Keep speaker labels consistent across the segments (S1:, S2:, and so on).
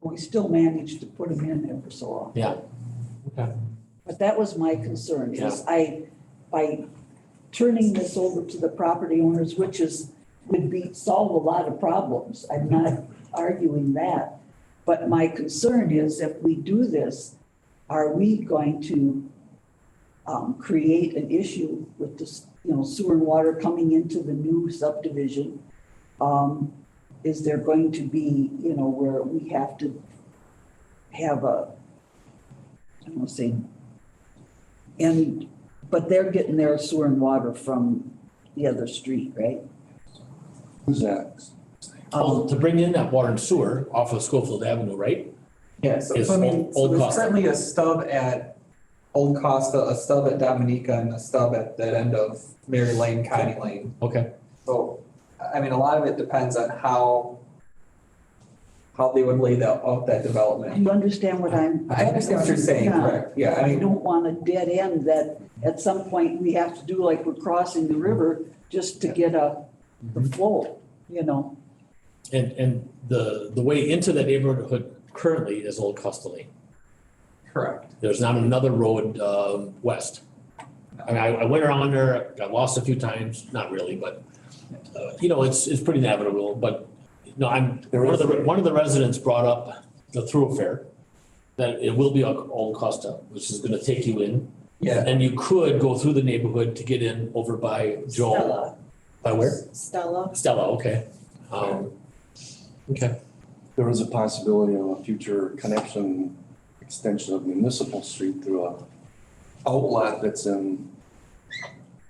S1: We still managed to put them in there for so long.
S2: Yeah. Okay.
S1: But that was my concern, is I, by turning this over to the property owners, which is, would be, solve a lot of problems. I'm not arguing that. But my concern is if we do this, are we going to um, create an issue with this, you know, sewer and water coming into the new subdivision? Um, is there going to be, you know, where we have to have a, I don't want to say and, but they're getting their sewer and water from the other street, right?
S3: Who's that?
S2: Well,
S1: Um,
S2: to bring in that water and sewer off of Schofield Avenue, right?
S4: Yeah, so,
S2: Is
S4: so I mean,
S2: Old-
S4: so
S2: Old
S4: there's
S2: Costa.
S4: currently a stub at Old Costa, a stub at Dominica, and a stub at that end of Mary Lane, County Lane.
S2: Okay,
S4: So, I I mean, a lot of it depends on how, how they would lay that, out that
S1: Do
S4: development.
S1: you understand what I'm?
S4: I understand what you're saying,
S1: Yeah.
S4: correct, yeah, I
S1: I
S4: mean,
S1: don't want a dead end that at some point we have to do like we're crossing the river just to get a, the
S4: Mm-hmm.
S1: flow, you know?
S2: and, and the, the way into that neighborhood currently is Old Costa Lane.
S4: correct.
S2: There's not another road, um, west. I mean, I, I went around there, got lost a few times, not really, but, uh, you know, it's, it's pretty navigable, but, no, I'm, one of the, one of the residents brought up the thoroughfare, that it will be on Old Costa, which is gonna take you in,
S4: Yeah,
S2: and you could go through the neighborhood to get in over by Joel.
S1: Stella,
S2: By where?
S5: Stella.
S2: Stella, okay. Um, okay,
S3: There is a possibility of a future connection, extension of municipal street through a outlet that's in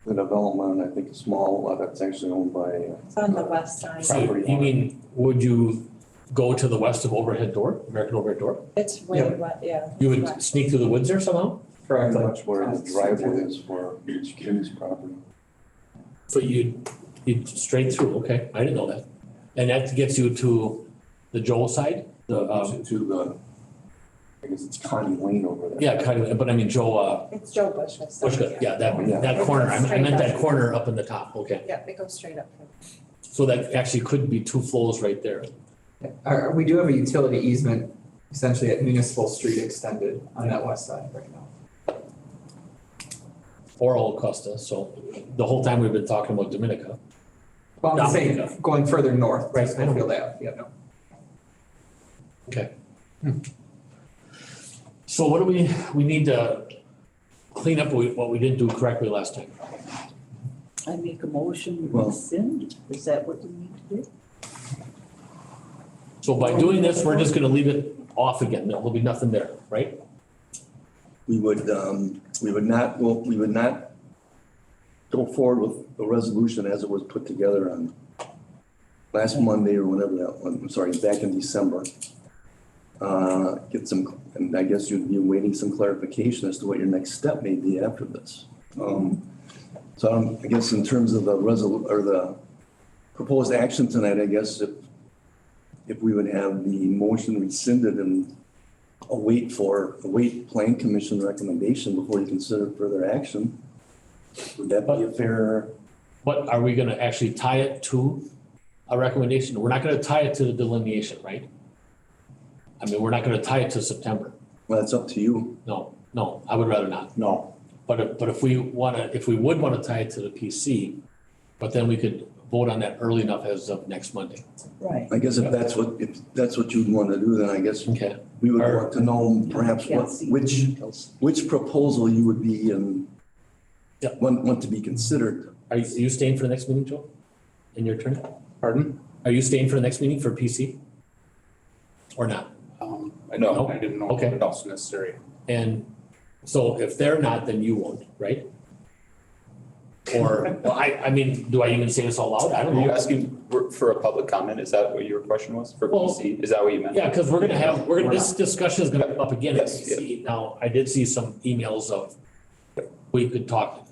S3: the development, I think a small outlet that's actually owned by, uh,
S5: It's on the west side.
S2: so you mean, would you go to the west of overhead door, American overhead door?
S5: It's way
S4: Yeah.
S5: west, yeah.
S2: You would sneak through the woods there somehow?
S4: correct.
S3: pretty much where the driveway is for each kid's property.
S2: So you'd, you'd straight through, okay, I didn't know that. And that gets you to the Joel side? The, um,
S3: To the, I guess it's Connie Lane over there.
S2: yeah, kind of, but I mean, Joel, uh,
S5: It's Joe Bush's.
S2: what's good, yeah, that, that corner, I I meant that corner up in the top, okay.
S5: Yeah, it goes straight up. from-
S2: So that actually could be two flows right there.
S4: Uh, we do have a utility easement essentially at Municipal Street extended on that west side right now.
S2: Or Old Costa, so the whole time we've been talking about Dominica.
S4: Well, I'm just saying,
S2: Dominica.
S4: going further north,
S2: Right,
S4: right,
S2: I know.
S4: Schofield Ave, yeah, no.
S2: So what do we, we need to clean up what we- what we didn't do correctly last time.
S1: I make a motion, we
S3: Well-
S1: rescind, is that what we need to do?
S2: So by doing this, we're just gonna leave it off again, there'll be nothing there, right?
S6: we would, um, we would not, go we would not go forward with the resolution as it was put together on last Monday or whenever that one, I'm sorry, back in December. Uh, Get some, and I guess you'd be awaiting some clarification as to what your next step may be after this. Um, So um, I guess in terms of the resolu, or the proposed action tonight, I guess if, if we would have the motion rescinded and await for, await plan commission recommendation before you consider further action. Would that be a fair,
S2: But are we gonna actually tie it to a recommendation? We're not gonna tie it to the delineation, right? I mean, we're not gonna tie it to September,
S6: well, that's up to you.
S2: no, no, I would rather not.
S6: No.
S2: But if, but if we wanna, if we would wanna tie it to the PC, but then we could vote on that early enough as of next Monday.
S1: Right.
S6: I guess if that's what, if that's what you'd want to do, then I guess
S2: Okay.
S6: we would want to know perhaps what, which, which proposal you would be in,
S2: Yeah.
S6: want, want to be considered.
S2: Are you, are you staying for the next meeting, Joe? In your turn?
S7: Pardon?
S2: Are you staying for the next meeting for PC? Or not?
S7: Um, I
S2: No.
S7: know, I didn't know
S2: Okay.
S7: what else necessary.
S2: And so if they're not, then you won't, right? Or, well, I, I mean, do I even say this out loud? I don't
S7: Are you
S2: know.
S7: asking for- for a public comment? Is that what your question was for
S2: Well-
S7: PC? Is that what you meant?
S2: Yeah, because we're gonna have, we're gonna,
S7: We're
S2: this discussion is gonna come up again at
S7: Yes,
S2: PC. Now, I did see some emails of, we could talk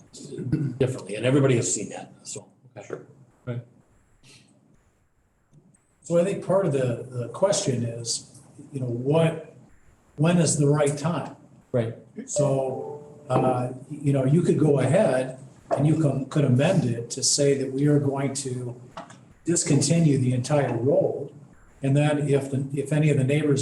S2: differently, and everybody has seen that, so.
S7: Sure.
S8: So I think part of the, the question is, you know, what, when is the right time?
S2: Right.
S8: So, uh, you know, you could go ahead and you can, could amend it to say that we are going to discontinue the entire road. And then if, the if any of the neighbors